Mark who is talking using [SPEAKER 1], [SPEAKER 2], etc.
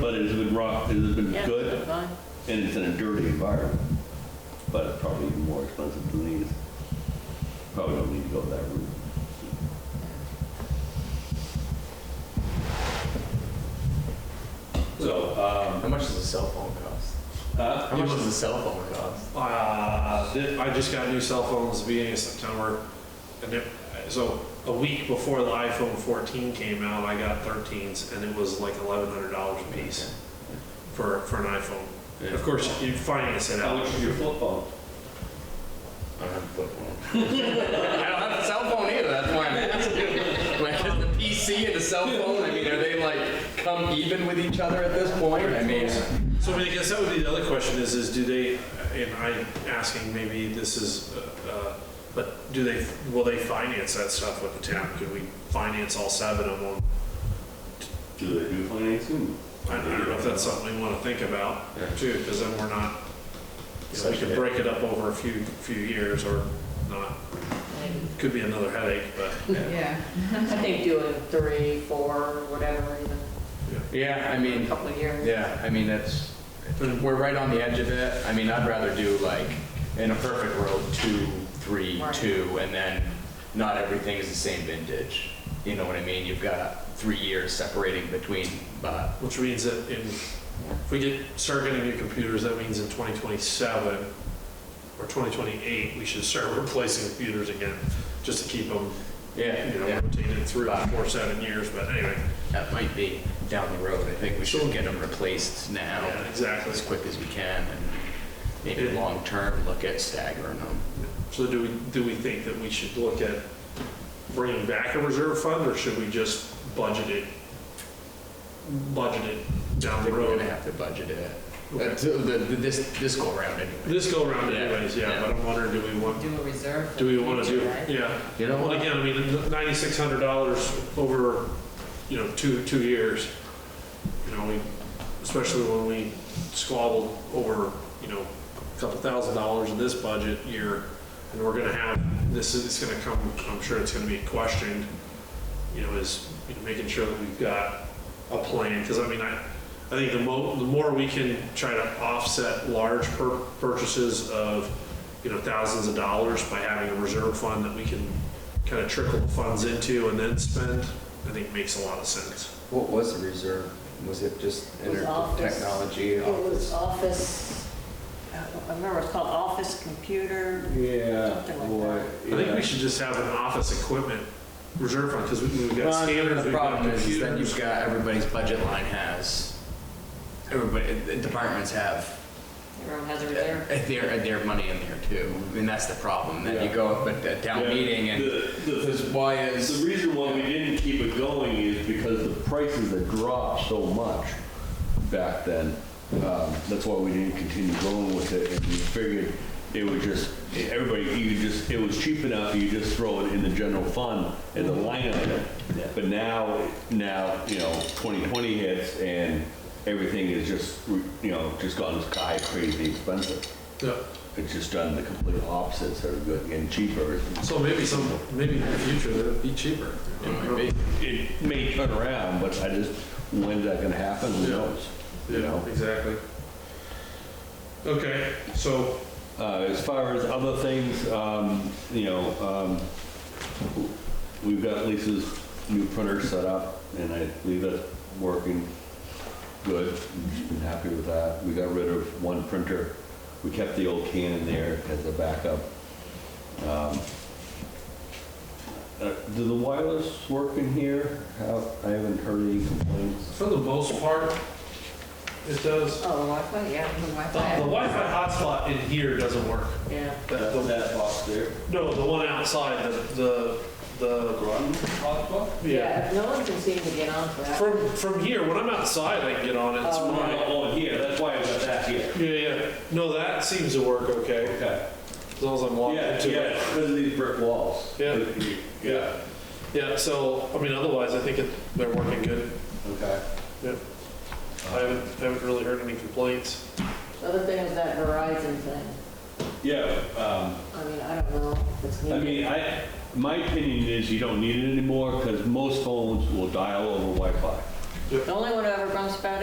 [SPEAKER 1] but it's been rock, it's been
[SPEAKER 2] Yeah,
[SPEAKER 1] good,
[SPEAKER 2] fine.
[SPEAKER 1] and it's in a dirty environment, but it's probably even more expensive than these. Probably don't need to go that route. So,
[SPEAKER 3] How much does a cell phone cost?
[SPEAKER 1] um, uh,
[SPEAKER 3] How much does a cell phone cost?
[SPEAKER 4] Uh, th- I just got new cell phones at the beginning of September, and it, so a week before the iPhone 14 came out, I got 13s, and it was like $1,100 a piece for, for an iPhone. Of course, you finance it
[SPEAKER 1] how
[SPEAKER 4] out.
[SPEAKER 1] much is your flip phone?
[SPEAKER 3] I don't have a flip phone. I don't have a cell phone either, that's why I'm asking. Like, is the PC and the cell phone, I mean, are they like come even with each other at this point? I mean,
[SPEAKER 4] So I mean, I guess that would be the other question is, is do they, and I'm asking, maybe this is, uh, uh, but do they, will they finance that stuff with the town? Could we finance all seven of them?
[SPEAKER 1] Do they do financing?
[SPEAKER 4] I I don't know if that's something we want to think about too, because then we're not, you know, we could break it up over a few, few years or not. Could be another headache, but
[SPEAKER 2] Yeah, I think doing three, four, whatever, even
[SPEAKER 3] yeah, I
[SPEAKER 2] a
[SPEAKER 3] mean,
[SPEAKER 2] couple of years.
[SPEAKER 3] yeah, I mean, that's, we're right on the edge of it. I mean, I'd rather do like, in a perfect world, two, three,
[SPEAKER 2] Right.
[SPEAKER 3] two, and then not everything is the same vintage. You know what I mean? You've got three years separating between, uh, but
[SPEAKER 4] which means that in, if we get, start getting new computers, that means in 2027 or 2028, we should start replacing computers again, just to keep them,
[SPEAKER 3] yeah,
[SPEAKER 4] you know,
[SPEAKER 3] yeah.
[SPEAKER 4] rotated through four, seven years, but anyway.
[SPEAKER 3] That might be down the road. I think we should get them replaced now.
[SPEAKER 4] Yeah, exactly.
[SPEAKER 3] As quick as we can and maybe
[SPEAKER 4] Yeah.
[SPEAKER 3] long-term, look at staggering them.
[SPEAKER 4] So do we, do we think that we should look at bringing back a reserve fund, or should we just budget it, budget it
[SPEAKER 3] I
[SPEAKER 4] down the
[SPEAKER 3] think we're gonna
[SPEAKER 4] road?
[SPEAKER 3] have to budget it.
[SPEAKER 4] Okay.
[SPEAKER 3] Uh, so the- the- This, this go around anyway.
[SPEAKER 4] This go around
[SPEAKER 3] Yeah,
[SPEAKER 4] anyways, yeah,
[SPEAKER 3] yeah.
[SPEAKER 4] but I'm wondering, do we want,
[SPEAKER 2] Do a reserve. for
[SPEAKER 4] do we
[SPEAKER 2] the
[SPEAKER 4] want to
[SPEAKER 2] future,
[SPEAKER 4] do,
[SPEAKER 2] right?
[SPEAKER 4] yeah.
[SPEAKER 3] You know
[SPEAKER 4] Well,
[SPEAKER 3] what?
[SPEAKER 4] again, I mean, ninety-six hundred dollars over, you know, two, two years, you know, we, especially when we squabbled over, you know, a couple thousand dollars in this budget year, and we're gonna have, this is, it's gonna come, I'm sure it's gonna be questioned, you know, is you know, making sure that we've got a plan, because I mean, I, I think the mo, the more we can try to offset large pur- purchases of, you know, thousands of dollars by having a reserve fund that we can kind of trickle the funds into and then spend, I think makes a lot of sense.
[SPEAKER 3] What was the reserve? Was it just
[SPEAKER 2] It was office.
[SPEAKER 3] technology?
[SPEAKER 2] It was office, uh, I don't remember, it's called office computer.
[SPEAKER 1] Yeah,
[SPEAKER 2] Something like boy,
[SPEAKER 4] I think we should just have an office equipment reserve fund, because we've got
[SPEAKER 3] Well, and
[SPEAKER 4] scanners,
[SPEAKER 3] The
[SPEAKER 4] we've got
[SPEAKER 3] problem is then
[SPEAKER 4] computers.
[SPEAKER 3] you've got, everybody's budget line has, everybody, the departments have
[SPEAKER 2] Everyone has a reserve.
[SPEAKER 3] their, their money in there too. I mean, that's the problem. Then you
[SPEAKER 1] Yeah.
[SPEAKER 3] go up at the town
[SPEAKER 1] Yeah.
[SPEAKER 3] meeting and
[SPEAKER 1] The- the-
[SPEAKER 3] this is why is.
[SPEAKER 1] The reason why we didn't keep it going is because the prices had dropped so much back then. Um, That's why we didn't continue going with it, and we figured it would just, everybody, you could just, it was cheap enough, you just throw it in the general fund as a line item. But now, now, you know, 2020 hits and everything is just, you know, just gone sky crazy expensive.
[SPEAKER 4] Yeah.
[SPEAKER 1] It's just done the complete opposite, sort of good, getting cheaper.
[SPEAKER 4] So maybe some, maybe in the future, that'd be cheaper.
[SPEAKER 3] It might be.
[SPEAKER 1] it may turn around, but I just, when's that gonna happen, who
[SPEAKER 4] Yeah.
[SPEAKER 1] knows? You
[SPEAKER 4] Yeah,
[SPEAKER 1] know?
[SPEAKER 4] exactly. Okay, so,
[SPEAKER 1] Uh, as far as other things, um, you know, um, we've got Lisa's new printer set up, and I believe that's working good. I'm happy with that. We got rid of one printer. We kept the old Canon there as a backup. Um, uh, Do the wireless work in here? How- I haven't heard any complaints.
[SPEAKER 4] for the most part, it does.
[SPEAKER 2] Oh, the Wi-Fi, yeah, Oh, the
[SPEAKER 4] The the
[SPEAKER 2] Wi-Fi.
[SPEAKER 4] Wi-Fi hotspot in here doesn't work.
[SPEAKER 2] Yeah,
[SPEAKER 4] The- the-
[SPEAKER 1] box there.
[SPEAKER 4] No, the one outside, the, the, the,
[SPEAKER 1] hotspot?
[SPEAKER 4] yeah.
[SPEAKER 2] yeah, no one can seem to get on for that.
[SPEAKER 4] From, from here, when I'm outside, I can get on it, it's
[SPEAKER 2] Oh.
[SPEAKER 4] fine.
[SPEAKER 1] Oh, here, that's why I got that here.
[SPEAKER 4] Yeah, yeah, no, that seems to work okay,
[SPEAKER 1] Okay.
[SPEAKER 4] as long as I'm logged
[SPEAKER 1] Yeah,
[SPEAKER 4] into
[SPEAKER 1] yeah,
[SPEAKER 4] it.
[SPEAKER 1] because of these brick walls.
[SPEAKER 4] Yeah.
[SPEAKER 1] Yeah,
[SPEAKER 4] Yeah, so, I mean, otherwise, I think it, they're working good.
[SPEAKER 1] okay.
[SPEAKER 4] Yep. I haven't, I haven't really heard any complaints.
[SPEAKER 2] The other thing is that Verizon thing.
[SPEAKER 1] Yeah, um,
[SPEAKER 2] I mean, I don't know if it's
[SPEAKER 1] I
[SPEAKER 2] needed.
[SPEAKER 1] mean, I, my opinion is you don't need it anymore because most phones will dial over Wi-Fi.
[SPEAKER 2] The only one who ever bumps about it